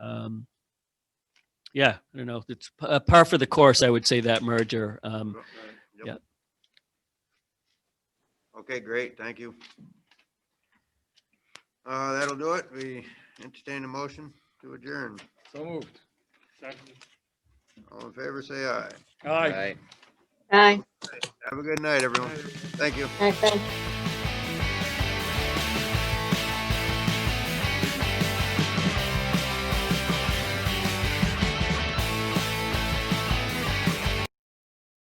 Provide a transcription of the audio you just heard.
um, yeah, I don't know. It's p- uh, par for the course, I would say that merger. Um, Yep. yeah. Okay, great, thank you. Uh, that'll do it. We entertain a motion to adjourn. So moved. All in favor, say aye. Aye. Aye. Have a good night, everyone. Thank you. Aye. thanks.